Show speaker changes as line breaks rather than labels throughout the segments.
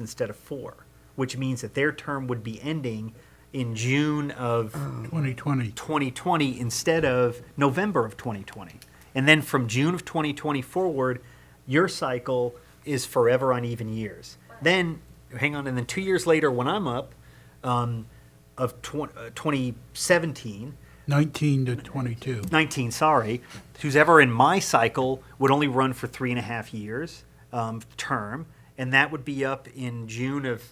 instead of four, which means that their term would be ending in June of
2020.
2020 instead of November of 2020. And then from June of 2020 forward, your cycle is forever on even years. Then, hang on, and then two years later, when I'm up um, of tw- uh, 2017,
19 to 22.
19, sorry, who's ever in my cycle would only run for three and a half years um, term, and that would be up in June of.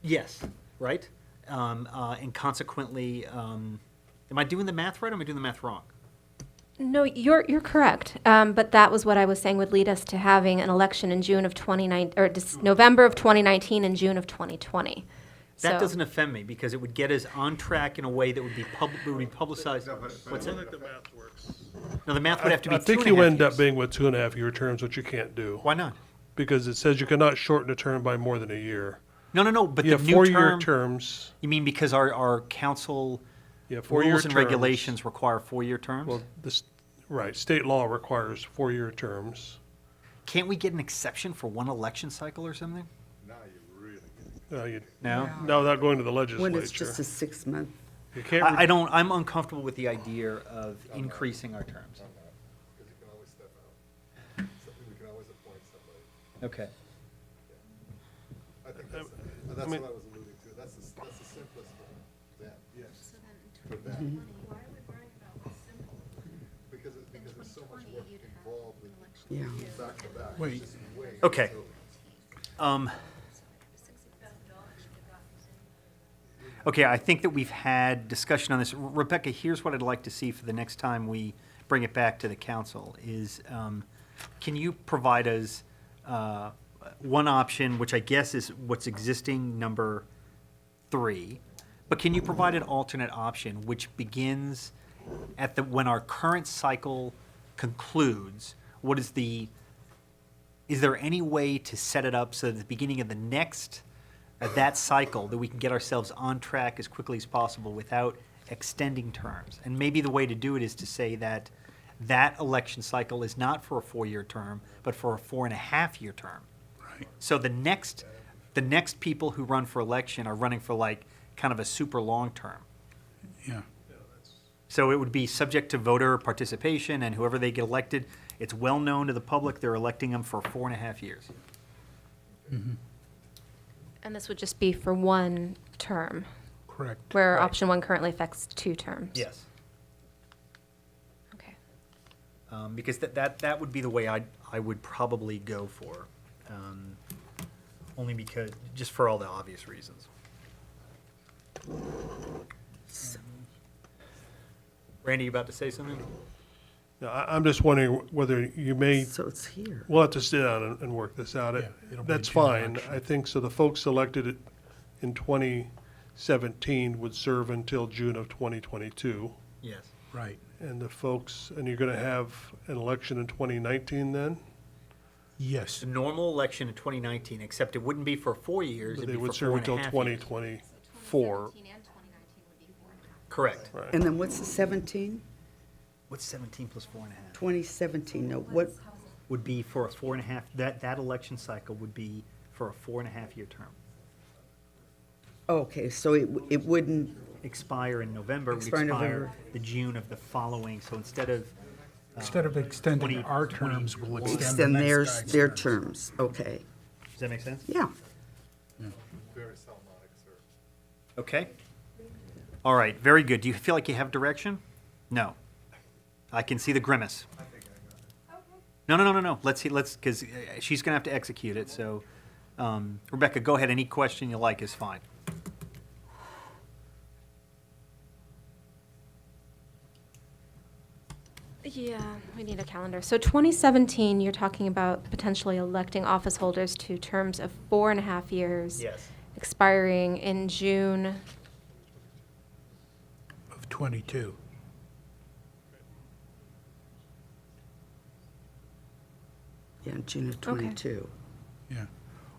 Yes, right? Um, uh, and consequently, um, am I doing the math right or am I doing the math wrong?
No, you're, you're correct. Um, but that was what I was saying would lead us to having an election in June of 2019, or Dec- November of 2019 and June of 2020.
That
So-
doesn't offend me because it would get us on track in a way that would be, pub- would be publicized. What's that?
the math works.
No, the math would have to be
I think
two and
you
a half
end up
years.
being with two and a half year terms, which you can't do.
Why not?
Because it says you cannot shorten a term by more than a year.
No, no, no. But
You
the
have
new
four-year
term.
terms.
You mean because our, our council
You have four-year
rules and
terms.
regulations require four-year terms?
Well, this, right, state law requires four-year terms.
Can't we get an exception for one election cycle or something?
No, Uh, you,
No?
no, without going to the
When it's just a
legislature.
six-month,
You can't, re-
I, I don't, I'm uncomfortable with the idea of increasing our terms.
Because you can always step out. So We can always appoint somebody.
Okay.
I think that's, and that's what I was alluding to. That's the, that's the simplest one. That, yes. For that. Because it, because there's so much work involved with
yeah.
back to back.
Wait,
Wait.
Okay. Um, okay, I think that we've had discussion on this. Rebecca, here's what I'd like to see for the next time we bring it back to the council is, um, can you provide us, uh, one option, which I guess is what's existing number three, but can you provide an alternate option which begins at the, when our current cycle concludes, what is the is there any way to set it up so that the beginning of the next, of that cycle, that we can get ourselves on track as quickly as possible without extending terms? And maybe the way to do it is to say that that election cycle is not for a four-year term, but for a four and a half-year term. Right. So the next, the next people who run for election are running for like, kind of a super long term.
Yeah.
So it would be subject to voter participation, and whoever they get elected, it's well known to the public, they're electing them for four and a half years.
And this would just be for one term,
Correct.
where
Right.
option one currently affects two terms.
Yes.
Okay.
um, because that, that that would be the way I I would probably go for, um, only because just for all the obvious reasons. Randy, you about to say something?
no, I, I'm just wondering whether you may
So it's here.
We'll have to sit down and, and work this out. It-
Yeah, it'll be
That's
a June
fine.
election.
I think, so the folks elected it in twenty seventeen would serve until June of twenty twenty-two.
Yes.
Right.
And the folks, and you're gonna have an election in twenty nineteen then?
Yes.
The normal election in 2019, except it wouldn't be for four years.
But
it'd
they
be
would
for four
serve
and a
until
half
twenty
years.
twenty-four.
Correct.
And then what's the 17?
What's 17 plus four and a half?
2017, no, what,
Would be for a four and a half. That that election cycle would be for a four and a half year term.
oh, okay, so it, w- it wouldn't,
Expire in November. would
Expire in
expire
November.
the June of the following. So instead of
Instead of extending
20,
our terms, we'll extend the
extend
next
theirs,
guy's
their terms, okay,
Does that make sense?
yeah.
Very Salmonic, sir.
Okay. All right, very good. Do you feel like you have direction? No. I can see the grimace. No, no, no, no, no. Let's see, let's, because she's going to have to execute it, so. um, Rebecca, go ahead. Any question you like is fine.
Yeah, we need a calendar. So 2017, you're talking about potentially electing office holders to terms of four and a half years. Expiring in June
Of 22.
Yeah, June of 22.
Yeah.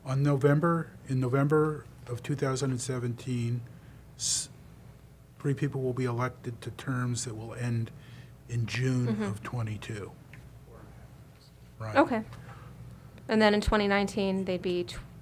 On November, in November of 2017, s- three people will be elected to terms that will end in June of 22. Right.
Oh, Okay. And then in 2019, they'd be tw-